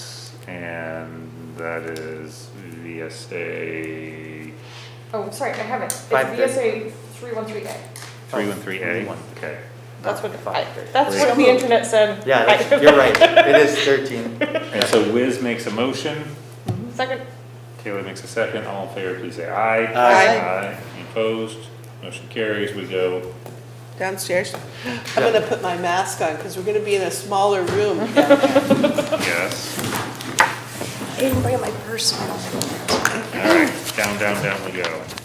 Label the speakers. Speaker 1: and that is VSA
Speaker 2: Oh, sorry, I have it. It's
Speaker 3: Five thirty.
Speaker 2: VSA three one three A.
Speaker 1: three one three A, okay.
Speaker 2: That's what, I,
Speaker 3: Five
Speaker 2: that's
Speaker 1: thirty.
Speaker 2: what the internet said.
Speaker 3: Yeah,
Speaker 2: I-
Speaker 3: that's- you're right, it is thirteen.
Speaker 1: And so Wiz makes a motion,
Speaker 2: Second,
Speaker 1: Kayla makes a second, all in favor, please say aye.
Speaker 3: Aye.
Speaker 1: Aye, Any opposed, motion carries, we go,
Speaker 4: downstairs. I'm gonna put my mask on, because we're gonna be in a smaller room. down there.
Speaker 1: yes,
Speaker 5: I didn't bring my purse. I don't think.
Speaker 1: all right, down, down, down we go.